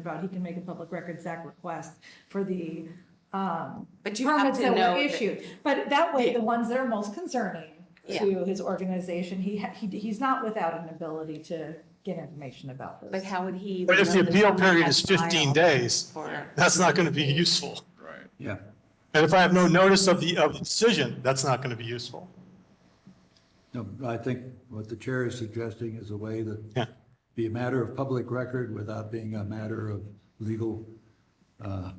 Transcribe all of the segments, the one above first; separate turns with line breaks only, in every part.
about, he can make a Public Records Act request for the um,
But you have
permits
to
that
know.
were
that-
issued. But that way,
Yeah.
the ones that are most concerning
Yeah.
to his organization, he, ha- he, he's not without an ability to get information about
But
those.
how would he?
But if the
know that
appeal
someone
period
has
is 15
filed
days,
For,
that's not going to be useful.
Right.
Yeah.
And if I have no notice of the, of the decision, that's not going to be useful.
No, I think what the chair is suggesting is a way
Yeah.
that be a matter of public record without being a matter of legal uh,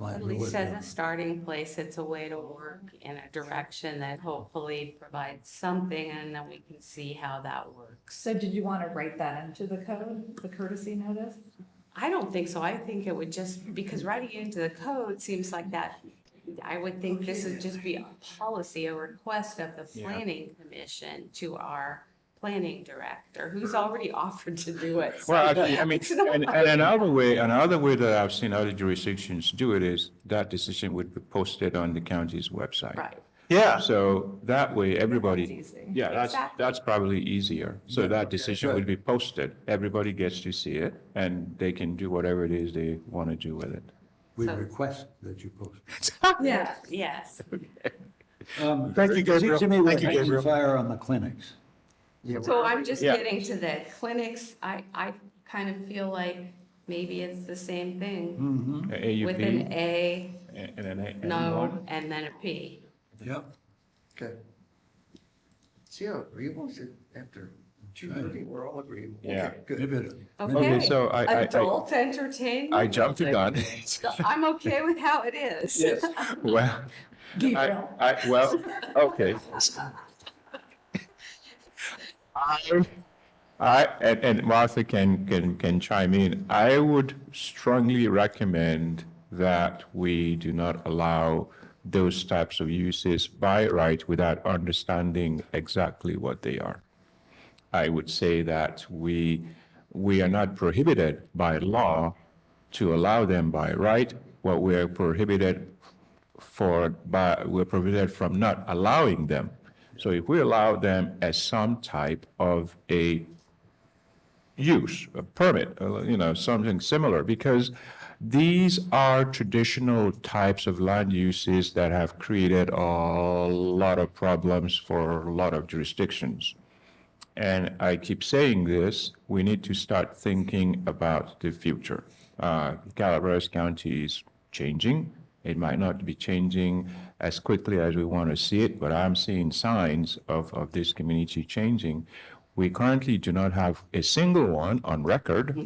at least as a
liability.
starting place, it's a way to work in a direction that hopefully provides something and then we can see how that works.
So did you want to write that into the code, the courtesy notice?
I don't think so. I think it would just, because writing it into the code seems like that, I would think this would just be a policy, a request of the planning commission to our planning director, who's already offered to do it. So
Well, actually, I mean,
It's not-
and, and another way, another way that I've seen other jurisdictions do it is that decision would be posted on the county's website.
Right.
Yeah,
So that way, everybody,
easy.
yeah, that's,
Exactly.
that's probably easier. So that decision would be posted, everybody gets to see it, and they can do whatever it is they want to do with it.
Mm-hmm.
We request that you post.
Yeah.
Yes.
Um,
Thank you,
it seems to me
Gabriel. Thank you,
we're catching
Gabriel.
Fire on the clinics.
So I'm just
Yeah.
getting to the clinics, I, I kind of feel like maybe it's the same thing with an
AUP
A,
Hmm. and an A.
no, and then a P.
Yep.
Okay. See how agreeable, is it? after two
Right.
thirty, we're all agreeable.
Yeah.
Okay, Good.
Maybe it-
Okay.
Okay, so I, I- I,
Adult entertainment?
I jumped the gun.
I'm okay with how it is. Yes.
Well, I,
Gabriel.
I, well, okay. I, I, and, and Martha can, can, can chime in. I would strongly recommend that we do not allow those types of uses by right without understanding exactly what they are. I would say that we, we are not prohibited by law to allow them by right. What we are prohibited for, by, we're prohibited from not allowing them. So if we allow them as some type of a use, a permit, uh, you know, something similar, because these are traditional types of land uses that have created a lot of problems for a lot of jurisdictions. And I keep saying this, we need to start thinking about the future. Uh, Calaveras County is changing. It might not be changing as quickly as we want to see it, but I'm seeing signs of, of this community changing. We currently do not have a single one on record.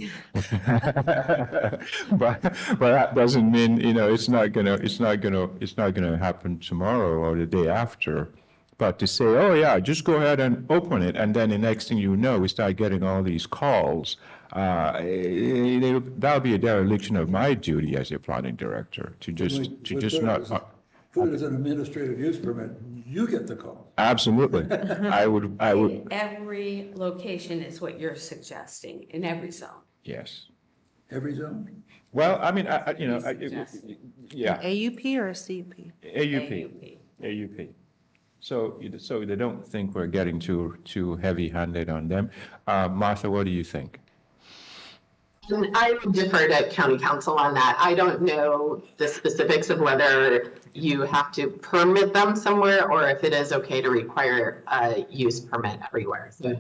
But, but that doesn't mean, you know, it's not gonna, it's not gonna, it's not gonna happen tomorrow or the day after. But to say, oh yeah, just go ahead and open it, and then the next thing you know, we start getting all these calls. Uh, it- it- That'll be a dereliction of my duty as a planning director, to just, to
We'll
just
put it
not. uh,
as a- Put it as an administrative use permit, you get the call.
Absolutely. I would, I would,
Every location is what you're suggesting, in every zone.
yes.
Every zone?
Well, I mean, I, I- you know, I- it-
Yes.
yeah,
AUP or a CUP?
AUP. AUP. So, you- so they don't think we're getting too, too heavy-handed on them. Uh, Martha, what do you think?
And I would defer to county council on that. I don't know the specifics of whether you have to permit them somewhere or if it is okay to require a use permit everywhere. So,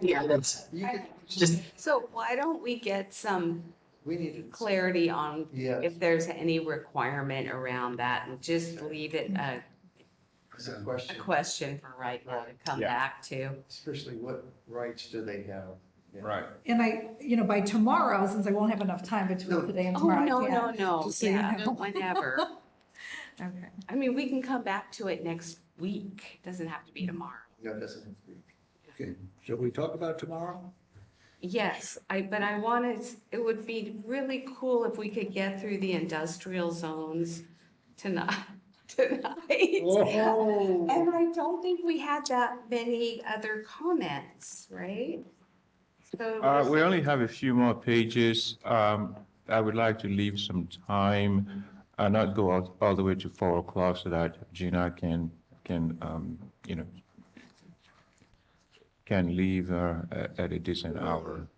yeah, that's
You could,
just,
So why don't we get some
we need to.
clarity on
Yes.
if there's any requirement around that and just leave it a,
It's a
a
question,
question for right now to come
Yeah.
back to.
especially what rights do they have? Yeah.
And I, you know, by tomorrow, since I won't have enough time between
No.
today and
Oh,
tomorrow. I
no,
can't.
no, no,
Just so you
yeah,
know.
whenever.
Okay.
I mean, we can come back to it next week, doesn't have to be
Mm-hmm.
tomorrow.
No, it doesn't. have to be.
Okay, shall we talk about tomorrow?
Yes, I, but I wanted, it would be really cool if we could get through the industrial zones tonight, tonight.
Oh,
And I don't think we had that many other comments, right? So
Uh, we only have a few more pages. Um, I would like to leave some time, uh, not go all, all the way to four o'clock so that Gina can, can, um, you know, can leave, uh, at, at a decent hour.